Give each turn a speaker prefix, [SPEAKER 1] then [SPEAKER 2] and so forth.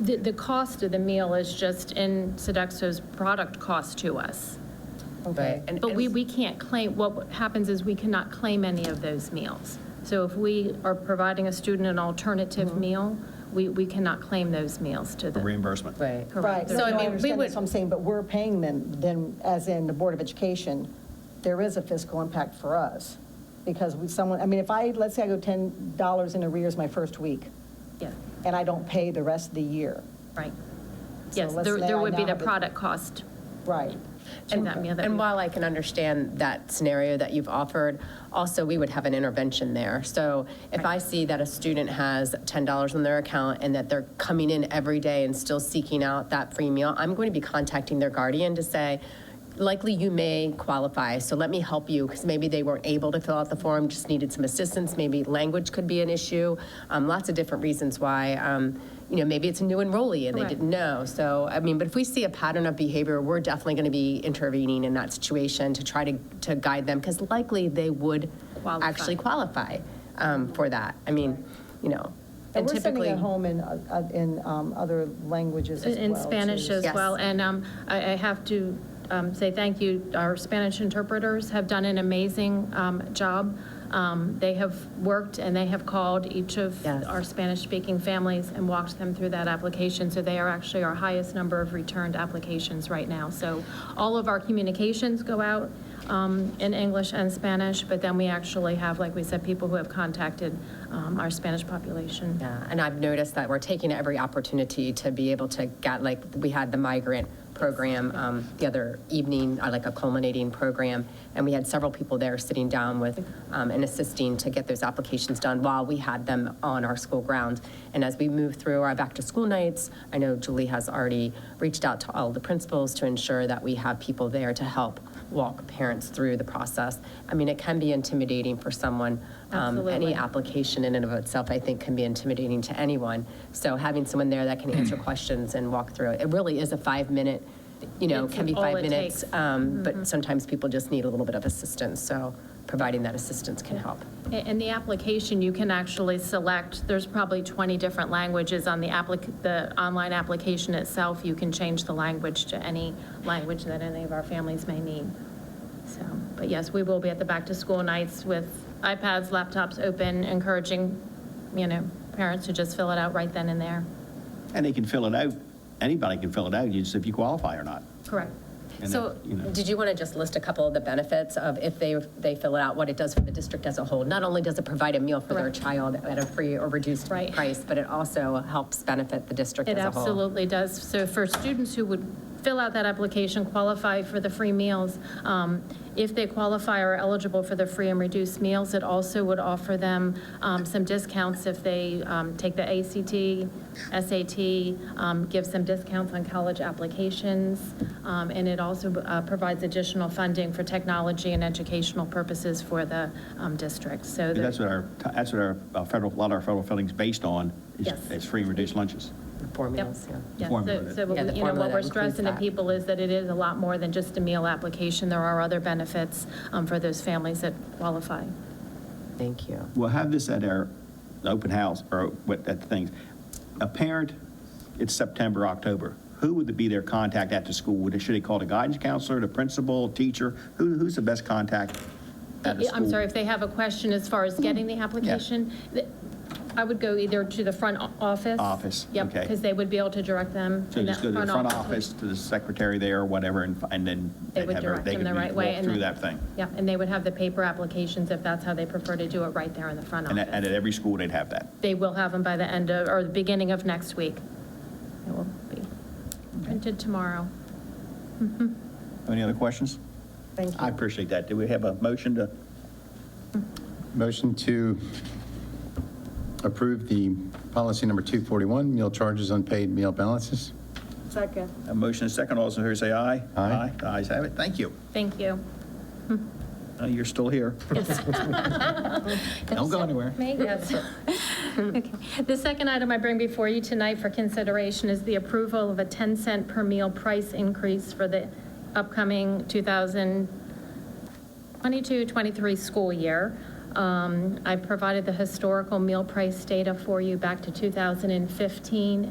[SPEAKER 1] The, the cost of the meal is just in Sodexo's product cost to us.
[SPEAKER 2] Okay.
[SPEAKER 3] And-
[SPEAKER 1] But
[SPEAKER 3] and-
[SPEAKER 1] we, we can't claim, what happens is we cannot claim any of those meals. So if we are providing a student an alternative meal, we, we cannot claim those meals to
[SPEAKER 4] for
[SPEAKER 1] them.
[SPEAKER 4] reimbursement.
[SPEAKER 2] Right.
[SPEAKER 1] Correct.
[SPEAKER 5] Right,
[SPEAKER 1] So,
[SPEAKER 5] so
[SPEAKER 1] I mean,
[SPEAKER 5] I
[SPEAKER 1] we
[SPEAKER 5] understand
[SPEAKER 1] would-
[SPEAKER 5] that's what I'm saying, but we're paying them, then, as in the Board of Education, there is a fiscal impact for us, because we, someone, I mean, if I, let's say I go $10 in arrears my first week,
[SPEAKER 1] Yeah,
[SPEAKER 5] and I don't pay the rest of the year,
[SPEAKER 1] right.
[SPEAKER 5] So
[SPEAKER 1] Yes,
[SPEAKER 5] let's
[SPEAKER 1] there,
[SPEAKER 5] say
[SPEAKER 1] there
[SPEAKER 5] I
[SPEAKER 1] would be the
[SPEAKER 5] now have a-
[SPEAKER 1] product cost
[SPEAKER 5] right?
[SPEAKER 1] to that meal that we
[SPEAKER 2] And while I can understand that scenario that you've offered, also, we would have an intervention there. So if I see that a student has $10 on their account and that they're coming in every day and still seeking out that free meal, I'm going to be contacting their guardian to say, likely you may qualify, so let me help you, because maybe they weren't able to fill out the form, just needed some assistance, maybe language could be an issue, um, lots of different reasons why, um, you know, maybe it's a new enrollee and they
[SPEAKER 1] Correct.
[SPEAKER 2] didn't know. So, I mean, but if we see a pattern of behavior, we're definitely going to be intervening in that situation to try to, to guide them, because likely they would
[SPEAKER 1] Qualify.
[SPEAKER 2] actually qualify um, for that. I mean, you know,
[SPEAKER 5] And
[SPEAKER 2] and
[SPEAKER 5] we're sending
[SPEAKER 2] typically.
[SPEAKER 5] it home in, uh, in um, other languages as well.
[SPEAKER 1] In Spanish
[SPEAKER 5] too.
[SPEAKER 1] as
[SPEAKER 2] Yes.
[SPEAKER 1] well, and um, I I have to um, say thank you. Our Spanish interpreters have done an amazing um, job. Um, They have worked and they have called each of
[SPEAKER 2] Yes.
[SPEAKER 1] our Spanish-speaking families and walked them through that application, so they are actually our highest number of returned applications right now. So all of our communications go out um, in English and Spanish, but then we actually have, like we said, people who have contacted um, our Spanish population.
[SPEAKER 2] Yeah, Uh, and I've noticed that we're taking every opportunity to be able to get, like, we had the migrant program um, the other evening, uh, like a culminating program, and we had several people there sitting down with um, and assisting to get those applications done while we had them on our school grounds. And as we move through our back-to-school nights, I know Julie has already reached out to all the principals to ensure that we have people there to help walk parents through the process. I mean, it can be intimidating for someone. um,
[SPEAKER 1] Absolutely.
[SPEAKER 2] Any application in and of itself, I think, can be intimidating to anyone. So having someone there that can
[SPEAKER 4] Hmm.
[SPEAKER 2] answer questions and walk through it, it really is a five-minute, you know,
[SPEAKER 1] It's
[SPEAKER 2] can be
[SPEAKER 1] all
[SPEAKER 2] five
[SPEAKER 1] it
[SPEAKER 2] minutes.
[SPEAKER 1] takes.
[SPEAKER 2] um, But sometimes people just need a little bit of assistance, so providing that assistance can help.
[SPEAKER 1] In- In the application, you can actually select, there's probably 20 different languages on the applic, the online application itself. You can change the language to any language that any of our families may need. So, but yes, we will be at the back-to-school nights with iPads, laptops open, encouraging, you know, parents to just fill it out right then and there.
[SPEAKER 4] And they can fill it out, anybody can fill it out, you just if you qualify or not.
[SPEAKER 1] Correct.
[SPEAKER 4] And
[SPEAKER 2] So,
[SPEAKER 4] that, you know.
[SPEAKER 2] did you want to just list a couple of the benefits of if they, they fill it out, what it does for the district as a whole? Not only does it provide a meal for their
[SPEAKER 1] Correct.
[SPEAKER 2] child at a free or reduced
[SPEAKER 1] Right.
[SPEAKER 2] price, but it also helps benefit the district as
[SPEAKER 1] It
[SPEAKER 2] a whole.
[SPEAKER 1] absolutely does. So for students who would fill out that application, qualify for the free meals, um, if they qualify or are eligible for the free and reduced meals, it also would offer them um, some discounts if they um, take the ACT, SAT, um, gives them discounts on college applications, um, and it also uh, provides additional funding for technology and educational purposes for the um, district. So
[SPEAKER 4] Because That's
[SPEAKER 1] there-
[SPEAKER 4] what our, that's what our uh, federal, a lot of our federal funding's based on, is-
[SPEAKER 1] Yes.
[SPEAKER 4] is free and reduced lunches.
[SPEAKER 1] Yep.
[SPEAKER 2] Formulas, yeah.
[SPEAKER 1] Yeah,
[SPEAKER 4] Formula
[SPEAKER 1] so,
[SPEAKER 4] that-
[SPEAKER 1] so,
[SPEAKER 2] Yeah, the
[SPEAKER 1] what we- you know,
[SPEAKER 2] formula
[SPEAKER 1] what
[SPEAKER 2] that
[SPEAKER 1] we're
[SPEAKER 2] includes
[SPEAKER 1] stressing to
[SPEAKER 2] that.
[SPEAKER 1] people is that it is a lot more than just a meal application. There are other benefits um, for those families that qualify.
[SPEAKER 2] Thank you.
[SPEAKER 4] We'll have this at our open house, or what, at the things. A parent, it's September, October, who would be their contact at the school? Would, should they call the guidance counselor, the principal, teacher? Who, who's the best contact at the school?
[SPEAKER 1] I'm sorry, if they have a question as far as getting the application, th- I would go either to the front o- office.
[SPEAKER 4] Office,
[SPEAKER 1] Yep,
[SPEAKER 4] okay.
[SPEAKER 1] because they would be able to direct them.
[SPEAKER 4] So
[SPEAKER 1] in
[SPEAKER 4] just
[SPEAKER 1] that
[SPEAKER 4] go to the front
[SPEAKER 1] would-
[SPEAKER 4] office, to the secretary there, or whatever, and, and then
[SPEAKER 1] They
[SPEAKER 4] they'd
[SPEAKER 1] would
[SPEAKER 4] have her-
[SPEAKER 1] direct
[SPEAKER 4] they
[SPEAKER 1] them
[SPEAKER 4] could
[SPEAKER 1] the
[SPEAKER 4] be-
[SPEAKER 1] right way.
[SPEAKER 4] walk
[SPEAKER 1] and
[SPEAKER 4] through
[SPEAKER 1] then-
[SPEAKER 4] that thing.
[SPEAKER 1] Yeah, and they would have the paper applications if that's how they prefer to do it, right there in the front
[SPEAKER 4] And at, and
[SPEAKER 1] office.
[SPEAKER 4] at every school, they'd have that.
[SPEAKER 1] They will have them by the end of, or the beginning of next week. It will be printed tomorrow.
[SPEAKER 4] Any other questions?
[SPEAKER 5] Thank you.
[SPEAKER 4] I appreciate that. Do we have a motion to,
[SPEAKER 6] Motion to approve the policy number 241, meal charges, unpaid meal balances.
[SPEAKER 5] Second.
[SPEAKER 4] a motion and a second, all those in favor say aye?
[SPEAKER 6] Aye.
[SPEAKER 4] The ayes have it, thank you.
[SPEAKER 1] Thank you.
[SPEAKER 4] Uh, You're still here. Don't go anywhere.
[SPEAKER 1] May, yes. Okay. The second item I bring before you tonight for consideration is the approval of a 10 cent per meal price increase for the upcoming 2022-23 school year. Um, Um, I provided the historical meal price data for you back to 2015